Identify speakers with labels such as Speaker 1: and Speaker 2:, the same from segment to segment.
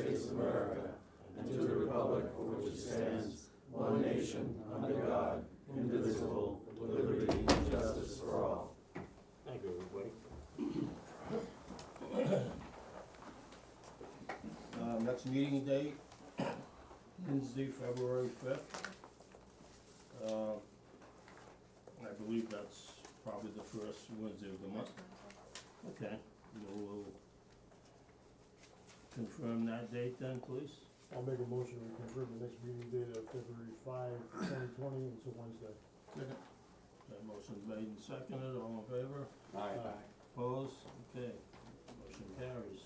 Speaker 1: America, and to the republic for which it stands, one nation, under God, indivisible, with liberty and justice for all.
Speaker 2: Thank you, everybody.
Speaker 3: Uh, next meeting date, Wednesday, February fifth. Uh, I believe that's probably the first Wednesday of the month. Okay, we'll confirm that date then, please.
Speaker 4: I'll make a motion to confirm the next meeting date of February five, twenty twenty, it's a Wednesday.
Speaker 3: Second. That motion made and seconded, all in favor? Opposed? Okay, motion carries.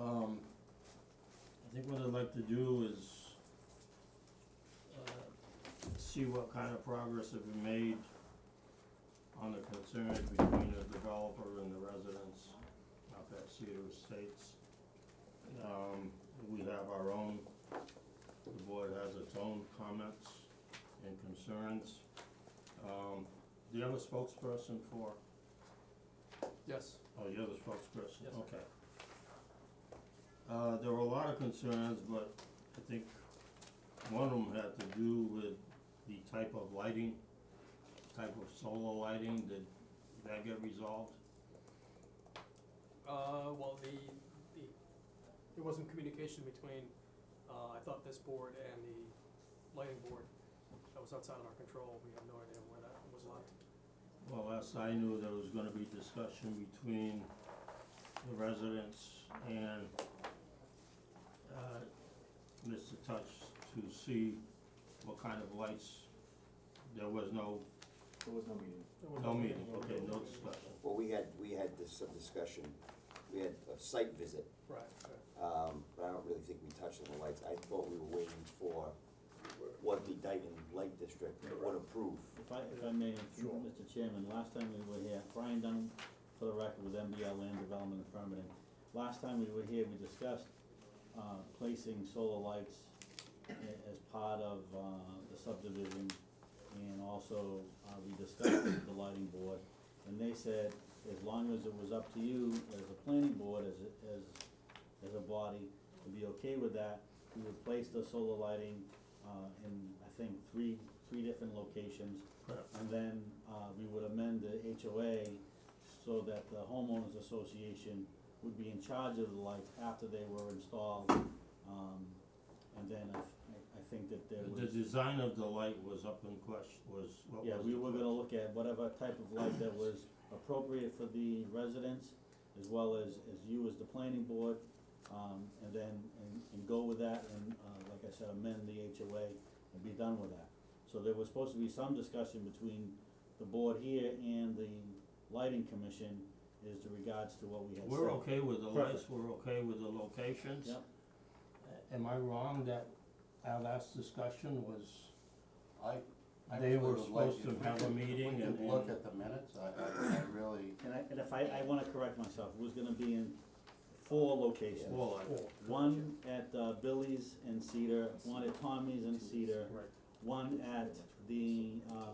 Speaker 3: Um, I think what I'd like to do is, uh, see what kind of progress have been made on the concerns between the developer and the residents up at Cedar Estates. Um, we have our own, the board has its own comments and concerns. Um, do you have a spokesperson for
Speaker 1: Yes.
Speaker 3: Oh, you're the spokesperson,
Speaker 1: Yes.
Speaker 3: okay. Uh, there were a lot of concerns, but I think one of them had to do with the type of lighting, type of solar lighting, did that get resolved?
Speaker 5: Uh, well, the, the, there wasn't communication between, uh, I thought this board and the lighting board. That was outside of our control, we have no idea where that was left.
Speaker 3: Well, last I knew, there was gonna be discussion between the residents and, uh, Mr. Touch to see what kind of lights, there was no,
Speaker 1: There was no meeting.
Speaker 5: There was
Speaker 3: no meeting, okay, no discussion.
Speaker 6: Well, we had, we had this, some discussion, we had a site visit,
Speaker 5: Right, right.
Speaker 6: um, but I don't really think we touched on the lights. I thought we were waiting for what the Dayton Light District would approve.
Speaker 7: If I, if I may, Mr. Chairman, last time we were here, Brian Dunn, for the record, with MBL Land Development and Permitting. Last time we were here, we discussed, uh, placing solar lights a- as part of, uh, the subdivision. And also, uh, we discussed with the lighting board, and they said, as long as it was up to you, as a planning board, as, a- as, as a body, to be okay with that, we would place the solar lighting, uh, in, I think, three, three different locations. And then, uh, we would amend the HOA so that the homeowners association would be in charge of the lights after they were installed. Um, and then I, I- I think that there
Speaker 3: The
Speaker 7: was,
Speaker 3: design of the light was up in question, was, what was
Speaker 7: yeah, we
Speaker 3: the
Speaker 7: were
Speaker 3: question?
Speaker 7: gonna look at whatever type of light that was appropriate for the residents as well as, as you as the planning board, um, and then, and, and go with that and, uh, like I said, amend the HOA and be done with that. So there was supposed to be some discussion between the board here and the lighting commission as to regards to what we had said.
Speaker 3: We're okay with the lights,
Speaker 7: Perfect.
Speaker 3: we're okay with the locations.
Speaker 7: Yep.
Speaker 3: A- Am I wrong that our last discussion was,
Speaker 8: I, I
Speaker 3: they
Speaker 8: really
Speaker 3: were
Speaker 8: would like
Speaker 3: supposed to
Speaker 8: if we
Speaker 3: have a
Speaker 8: could-
Speaker 3: meeting
Speaker 8: If
Speaker 3: and,
Speaker 8: we could look
Speaker 3: and-
Speaker 8: at the minutes, I, I, I really,
Speaker 7: And I, and if I, I wanna correct myself, it was gonna be in four locations.
Speaker 3: well, I-
Speaker 7: One at uh, Billy's and Cedar, one at Tommy's and Cedar,
Speaker 5: Right.
Speaker 7: one at the, uh,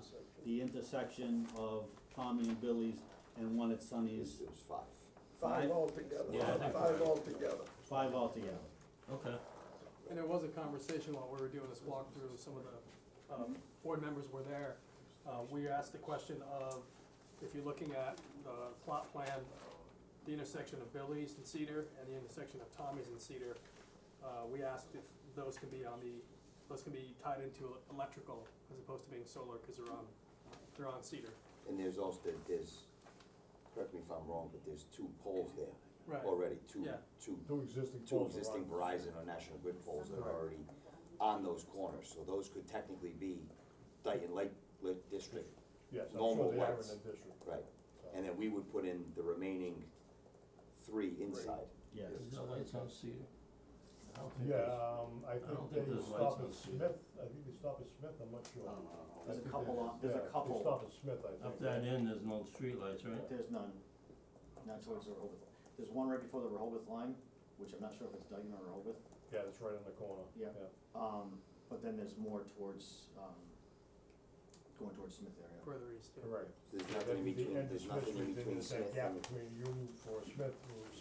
Speaker 7: the intersection of Tommy and Billy's, and one at
Speaker 6: It
Speaker 7: Sunny's,
Speaker 6: was, it was five.
Speaker 7: Five
Speaker 9: altogether,
Speaker 3: Yeah, I think-
Speaker 9: five altogether.
Speaker 7: five altogether.
Speaker 3: okay,
Speaker 5: And there was a conversation while we were doing this walkthrough, some of the, um, board members were there. Uh, we asked the question of, if you're looking at the plot plan, the intersection of Billy's and Cedar and the intersection of Tommy's and Cedar, uh, we asked if those can be on the, those can be tied into electrical as opposed to being solar, cause they're on, they're on Cedar.
Speaker 6: And there's also, there's, correct me if I'm wrong, but there's two poles there already, two,
Speaker 5: Yeah.
Speaker 6: two,
Speaker 4: Two existing
Speaker 6: two
Speaker 4: poles are
Speaker 6: existing
Speaker 4: on.
Speaker 6: Verizon or National Grid poles that are already on those corners. So those could technically be Dayton Light, Light District,
Speaker 4: Yes, I'm
Speaker 6: normal
Speaker 4: sure they are in
Speaker 6: lights.
Speaker 4: the district.
Speaker 6: right? And then we would put in the remaining three inside.
Speaker 7: Yes.
Speaker 3: is the lights on Cedar? I don't think
Speaker 4: Yeah,
Speaker 3: there's-
Speaker 4: um, I
Speaker 3: I don't
Speaker 4: think
Speaker 3: think
Speaker 4: they
Speaker 3: there's lights
Speaker 4: stop
Speaker 3: on
Speaker 4: at
Speaker 3: Cedar.
Speaker 4: Smith, I think they stop at Smith, I'm not
Speaker 8: I
Speaker 6: Uh,
Speaker 4: sure.
Speaker 8: don't know.
Speaker 4: I
Speaker 7: There's a
Speaker 4: think
Speaker 7: couple
Speaker 4: they-
Speaker 7: on- there's a
Speaker 4: yeah, They
Speaker 7: couple.
Speaker 4: stop at Smith, I think.
Speaker 3: Up that end, there's no streetlights, right?
Speaker 7: There's none, not towards the Rehoboth, there's one right before the Rehoboth line, which I'm not sure if it's Duggan or Rehoboth,
Speaker 4: Yeah, it's right on the corner.
Speaker 7: Yeah. um, but then there's more towards, um, going towards Smith area.
Speaker 5: Further east, yeah.
Speaker 4: Correct.
Speaker 6: There's
Speaker 4: Then
Speaker 6: nothing in
Speaker 4: the
Speaker 6: between,
Speaker 4: end of
Speaker 6: there's
Speaker 4: Smith
Speaker 6: nothing in
Speaker 4: Street, then
Speaker 6: between
Speaker 4: there's that
Speaker 6: Smith
Speaker 4: gap
Speaker 6: and
Speaker 4: between you for Smith, who's